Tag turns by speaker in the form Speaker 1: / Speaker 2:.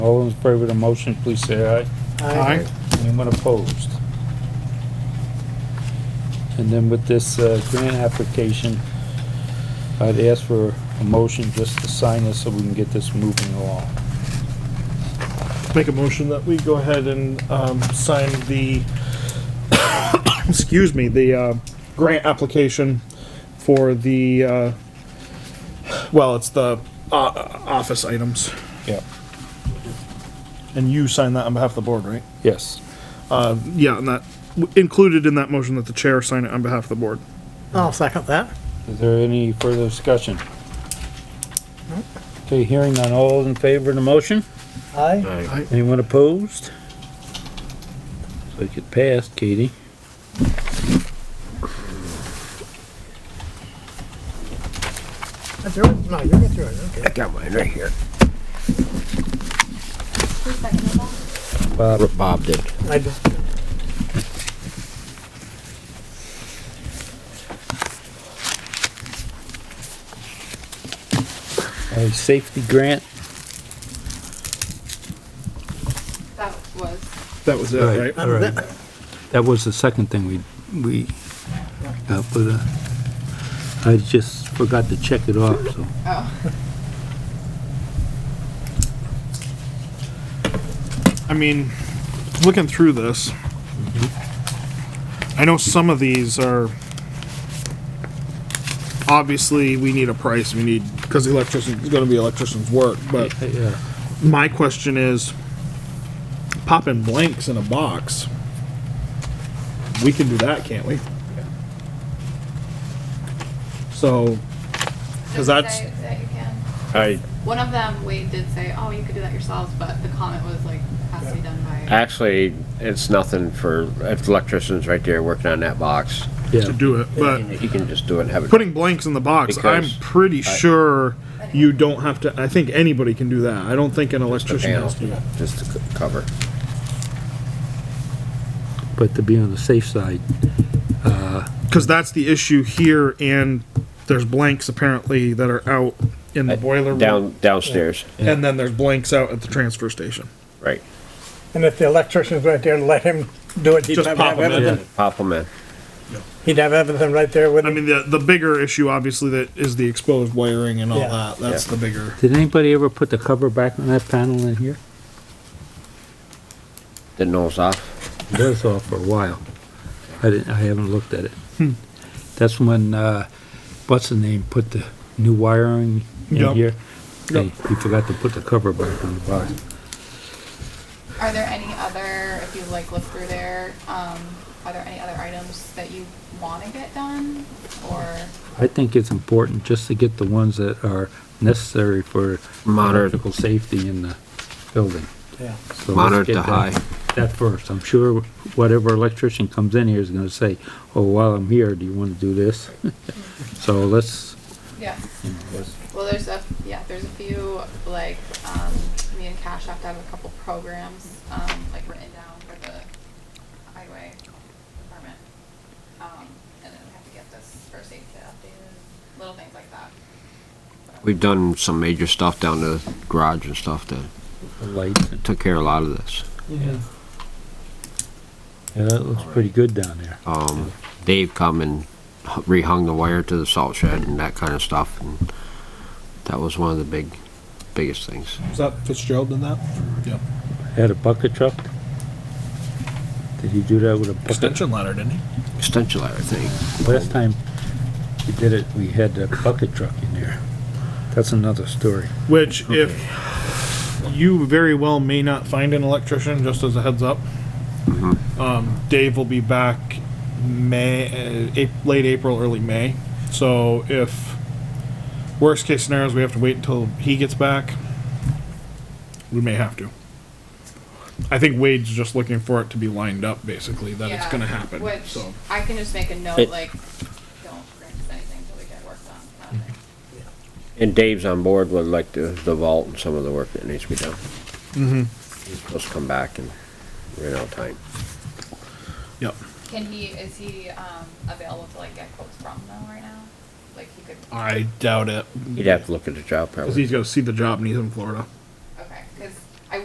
Speaker 1: All in favor of the motion, please say aye.
Speaker 2: Aye.
Speaker 1: Anyone opposed? And then with this uh, grant application, I'd ask for a motion just to sign this so we can get this moving along.
Speaker 2: Make a motion that we go ahead and, um, sign the, excuse me, the, uh, grant application for the, uh, well, it's the, uh, office items.
Speaker 1: Yeah.
Speaker 2: And you sign that on behalf of the board, right?
Speaker 1: Yes.
Speaker 2: Uh, yeah, and that, included in that motion that the chair sign it on behalf of the board.
Speaker 3: I'll second that.
Speaker 1: Is there any further discussion? Okay, hearing on all in favor of the motion?
Speaker 3: Aye.
Speaker 1: Anyone opposed? So it passed, Katie.
Speaker 3: That's yours? No, you get through it, okay.
Speaker 4: Got mine right here.
Speaker 5: Who's seconded that?
Speaker 1: Bob,
Speaker 4: Bob did.
Speaker 3: I just,
Speaker 1: a safety grant?
Speaker 5: That was.
Speaker 2: That was it, right?
Speaker 3: that was it.
Speaker 1: That was the second thing we, we, got, but, uh, I just forgot to check it off, so.
Speaker 2: I mean, looking through this, I know some of these are obviously we need a price. We need because electrician's going to be electrician's work. But
Speaker 1: Yeah,
Speaker 2: my question is, popping blanks in a box, we can do that, can't we? So, because that's
Speaker 5: Did say that you can.
Speaker 6: I
Speaker 5: One of them, Wade did say, "Oh, you could do that yourselves," but the comment was like, "Has to be done by."
Speaker 6: actually, it's nothing for if the electrician's right there working on that box.
Speaker 2: to
Speaker 1: yeah,
Speaker 2: do it, but.
Speaker 6: He can just do it and have it.
Speaker 2: putting blanks in the box,
Speaker 6: Because
Speaker 2: I'm pretty sure you don't have to. I think anybody can do that. I don't think an
Speaker 6: the
Speaker 2: electrician
Speaker 6: panel,
Speaker 2: has to.
Speaker 6: Just to co- cover.
Speaker 1: but to be on the safe side,
Speaker 2: Because that's the issue here, and there's blanks apparently that are out in the boiler room,
Speaker 6: Uh, Down, downstairs,
Speaker 2: and then there's blanks out at the transfer station.
Speaker 6: right.
Speaker 3: And if the electrician's right there, let him do it. He'd
Speaker 2: Just
Speaker 3: have
Speaker 2: pop 'em in.
Speaker 3: everything.
Speaker 6: Pop them in.
Speaker 3: He'd have everything right there with
Speaker 2: I
Speaker 3: him.
Speaker 2: mean, the the bigger issue obviously that is the exposed wiring and all
Speaker 3: Yeah.
Speaker 2: that. That's
Speaker 6: Yeah.
Speaker 2: the bigger.
Speaker 1: did anybody ever put the cover back on that panel in here?
Speaker 6: Didn't know it was off.
Speaker 1: It was off for a while. I didn't, I haven't looked at it. That's when, uh, what's the name, put the new wiring in
Speaker 2: Yep.
Speaker 1: here? Hey,
Speaker 2: Yep.
Speaker 1: he forgot to put the cover back on the box.
Speaker 5: Are there any other? If you like look through there, um, are there any other items that you want to get done, or
Speaker 1: I think it's important just to get the ones that are necessary for
Speaker 4: Monitor-
Speaker 1: electrical safety in the building.
Speaker 3: Yeah.
Speaker 1: So let's
Speaker 4: Monitor
Speaker 1: get
Speaker 4: to
Speaker 1: that-
Speaker 4: high.
Speaker 1: That first. I'm sure whatever electrician comes in here is gonna say, oh, while I'm here, do you wanna do this? So let's,
Speaker 5: yeah?
Speaker 1: you know, let's,
Speaker 5: Well, there's a yeah, there's a few like um, me and Cash have to have a couple programs um, like written down for the highway department, um, and then we have to get this first aid kit updated, little things like that.
Speaker 4: We've done some major stuff down the garage and stuff that
Speaker 1: the lights.
Speaker 4: took care of a lot of this.
Speaker 1: Yeah, that looks pretty good down there.
Speaker 4: Um, Dave come and h- rehung the wire to the salt shed and that kind of stuff. And that was one of the big, biggest things.
Speaker 2: Is that Fitzgerald did that? Yeah.
Speaker 1: Had a bucket truck? Did he do that with a bucket?
Speaker 2: ladder, didn't he?
Speaker 4: Extension ladder thing.
Speaker 1: Last time he did it, we had a bucket truck in there. That's another story.
Speaker 2: Which, if you very well may not find an electrician, just as a heads up, um, Dave will be back May, uh, Ap- late April, early May. So if worst case scenario is we have to wait until he gets back, we may have to. I think Wade's just looking for it to be lined up, basically, that it's
Speaker 5: Yeah,
Speaker 2: going to happen.
Speaker 5: Which
Speaker 2: so
Speaker 5: I can just make a note
Speaker 6: It-
Speaker 5: like, don't grant us anything until we get work done. kind of thing.
Speaker 6: And Dave's on board with like the, the vault and some of the work that needs to be done. Mm-hmm. He's supposed to come back and ran out of time.
Speaker 2: Yep.
Speaker 5: Can he? Is he um, available to like get quotes from them right now? Like he could.
Speaker 2: I doubt it.
Speaker 6: He'd have to look at the job
Speaker 2: Because
Speaker 6: probably.
Speaker 2: he's got to see the job and he's in Florida.